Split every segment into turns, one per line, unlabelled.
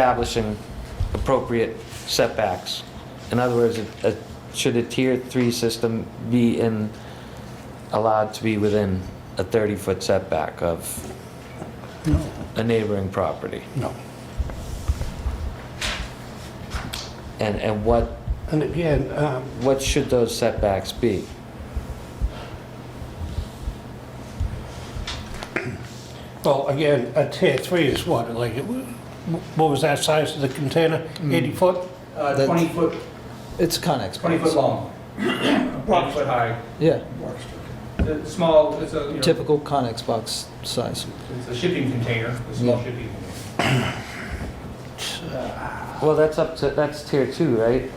establishing appropriate setbacks. In other words, a- a- should a tier three system be in, allowed to be within a 30-foot setback of
No,
a neighboring property?
no.
And, and what,
And again, um,
what should those setbacks be?
well, again, a tier three is what, like, what was that size of the container?
Hmm.
80 foot?
Uh,
That's-
20 foot,
It's Conex.
20 foot long, 20 foot high.
Yeah,
The Small, it's a, you know,
typical Conex box size.
it's a shipping container, a small
Yeah.
shipping container.
Well, that's up to, that's tier two, right?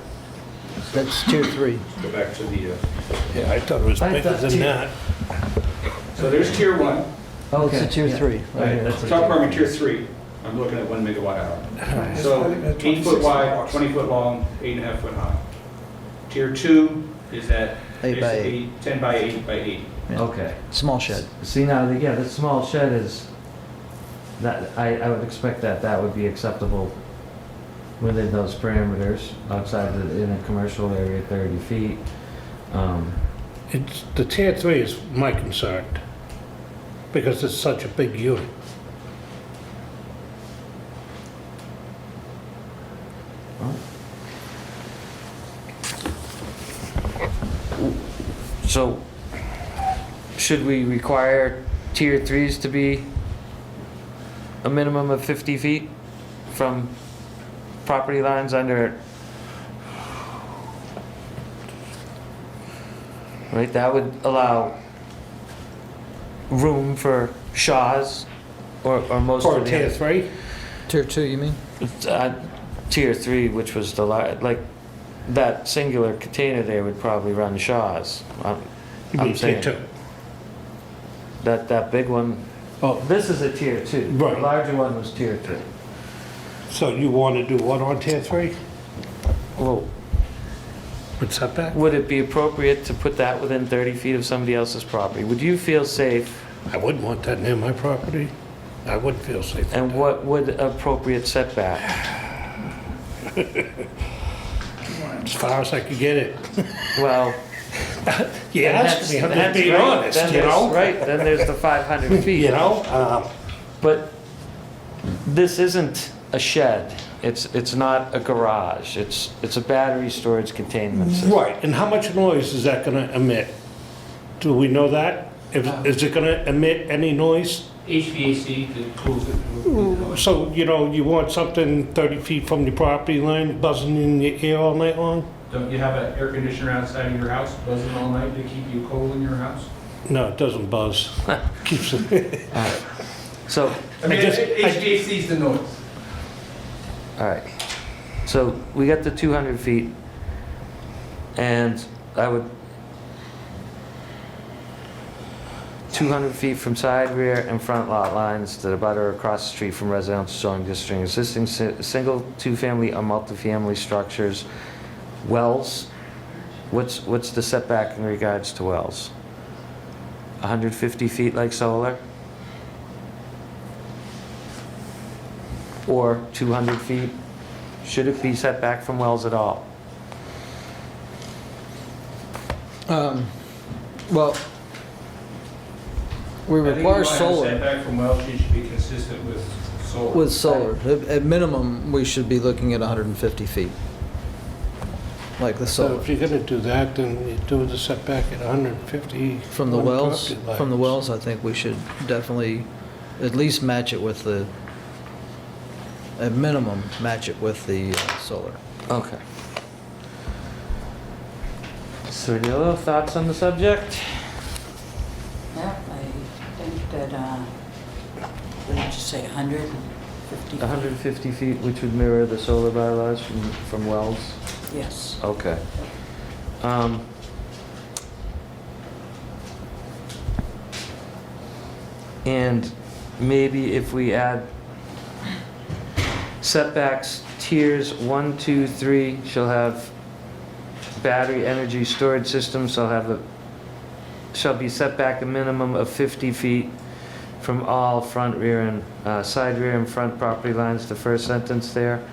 That's tier three.
Go back to the, uh,
Yeah, I thought it was
I
bigger
thought
than
tier-
that.
So there's tier one,
That's Oh, a
Okay,
tier
yeah.
three, right here.
We're talking about tier three, I'm looking at one megawatt hour. So eight foot wide, 20 foot long, eight and a half foot high. Tier two is that
Eight by eight.
basically 10 by 8 by 8.
Yeah.
Okay.
Small shed.
See now, yeah, the small shed is, that, I, I would expect that that would be acceptable within those parameters, outside the, in a commercial area, thirty feet. Um,
It's, the tier three is my concern, because it's such a big unit.
So, should we require tier threes to be a minimum of fifty feet from property lines under? Right, that would allow room for Shaws or, or most
For a
of the.
tier three?
Tier two, you mean?
Uh, Tier three, which was the, li- like, that singular container there would probably run Shaws. I'm-
You
I'm
mean
saying-
tier two?
That, that big one,
Oh,
this is a tier two.
Right.
The larger one was tier three.
so you want to do what on tier three?
Well,
With setback?
would it be appropriate to put that within 30 feet of somebody else's property? Would you feel safe?
I wouldn't want that near my property. I wouldn't feel safe. with
And
that.
what would appropriate setback?
As far as I could get it.
Well.
You
then
asked me,
that's-
I'm just
that's
being
right.
honest,
Then
you
there's-
know?
Right, then there's the 500 feet.
You know, um,
But this isn't a shed. It's, it's not a garage. It's, it's a battery storage containment system.
Right, and how much noise is that gonna emit? Do we know that? If-
Uh,
Is it gonna emit any noise?
HVAC that cools it.
So, you know, you want something 30 feet from the property line buzzing in your ear all night long?
Don't you have an air conditioner outside of your house buzzing all night to keep you cold in your house?
No, it doesn't buzz. Keeps it,
So,
I mean,
just- I-
HVAC is the noise.
all right. So we got the 200 feet. And I would, 200 feet from side, rear, and front lot lines that abutter across the street from residential zoning district, existing si- single, two-family, or multifamily structures, wells. What's, what's the setback in regards to wells? 150 feet like solar? Or 200 feet? Should it be set back from wells at all?
Um, well, we
I think if you
require
want to
solar
Setback from wells, you should be consistent with solar.
with solar. At, at minimum, we should be looking at 150 feet. Like the
so
solar.
if you're gonna do that, then you do the setback at 150.
From the
on
wells,
property
from the
lines.
wells, I think we should definitely at least match it with the, at minimum, match it with the uh, solar.
Okay. So any other thoughts on the subject?
Yeah, I think that, uh, what did you say, 150?
150 feet, which would mirror the solar bylaws from, from Wells?
Yes.
Okay. Um, And maybe if we add setbacks, tiers one, two, three shall have battery energy storage systems shall have a, shall be set back a minimum of 50 feet from all front, rear, and, uh, side, rear, and front property lines, the first sentence there.